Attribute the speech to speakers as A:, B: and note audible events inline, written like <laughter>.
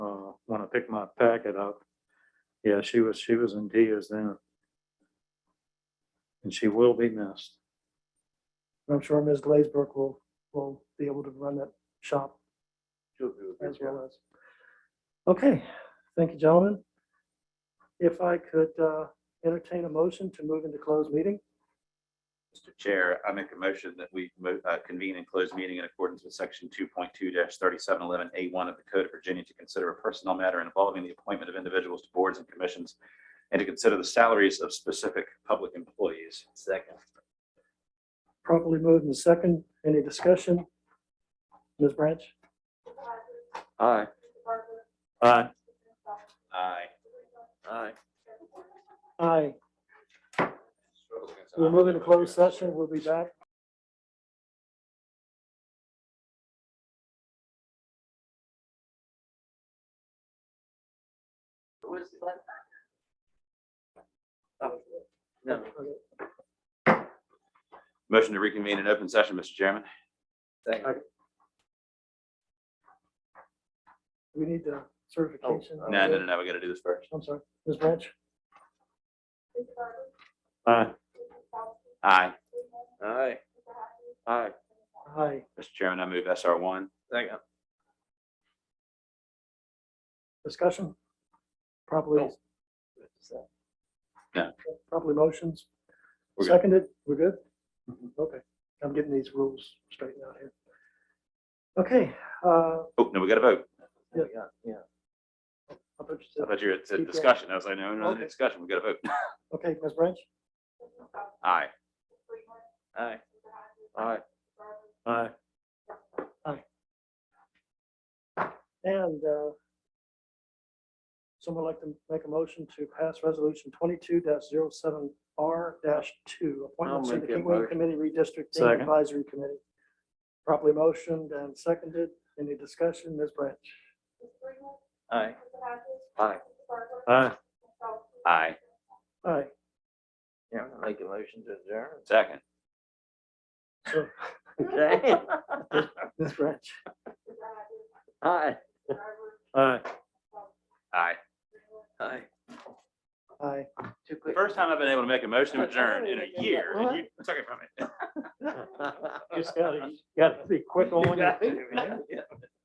A: picked uh, my packet up. Yeah, she was, she was in tears then. And she will be missed.
B: I'm sure Ms. Glazberg will, will be able to run that shop as well as. Okay, thank you, gentlemen. If I could uh, entertain a motion to move into closed meeting,
C: Mr. Chair, I make a motion that we mo- uh, convene and close meeting in accordance with section two point two thirty-seven eleven A one of the Code of Virginia to consider a personnel matter involving the appointment of individuals to boards and commissions and to consider the salaries of specific public employees. Second.
B: properly moved in second, any discussion? Ms. Branch?
A: Aye. Aye.
C: Aye. Aye.
B: Aye. We'll move into closed session, we'll be back.
D: No.
C: Motion to reconvene in open session, Mr. Chairman.
B: We need the certification.
C: Oh, No, no, no, no, we got to do this first.
B: I'm sorry, Ms. Branch?
A: Aye.
C: Aye.
D: Aye.
A: Aye.
B: Aye.
C: Mr. Chairman, I move SR one.
D: Second.
B: Discussion? Properly, properly motions?
C: We're good. Mm-hmm.
B: Seconded, we're good? Okay, I'm getting these rules straightened out here. Okay, uh,
C: Oh, no, we got to vote.
D: Yeah.
B: I thought you
C: I
B: said-
C: thought you were at
B: Keep going.
C: discussion. I was like, no, no,
B: Okay.
C: discussion. We got to vote.
B: okay, Ms. Branch?
C: Aye.
D: Aye.
A: Aye. Aye.
B: And uh, someone like to make a motion to pass resolution twenty-two 7 R two, appointments to the
D: make that
B: Kingway
D: motion.
B: Committee Redistricting
A: Second.
B: Advisory Committee. Properly motioned and seconded. Any discussion, Ms. Branch?
D: Aye.
A: Aye. Aye.
C: Aye.
B: Aye.
D: Yeah, I'm gonna make a motion to
A: <laughs>
D: adjourn.
C: Second.
D: Okay.
B: Ms. Branch?
D: Aye.
A: Aye.
C: Aye.
D: Aye.
B: Aye.
D: Too
C: The
D: quick.
C: first time I've been able to make a motion to adjourn in a year, and you took it from me.
D: <laughs>
B: <laughs>
A: Just gotta, gotta be quick on your feet, man.
D: Yeah.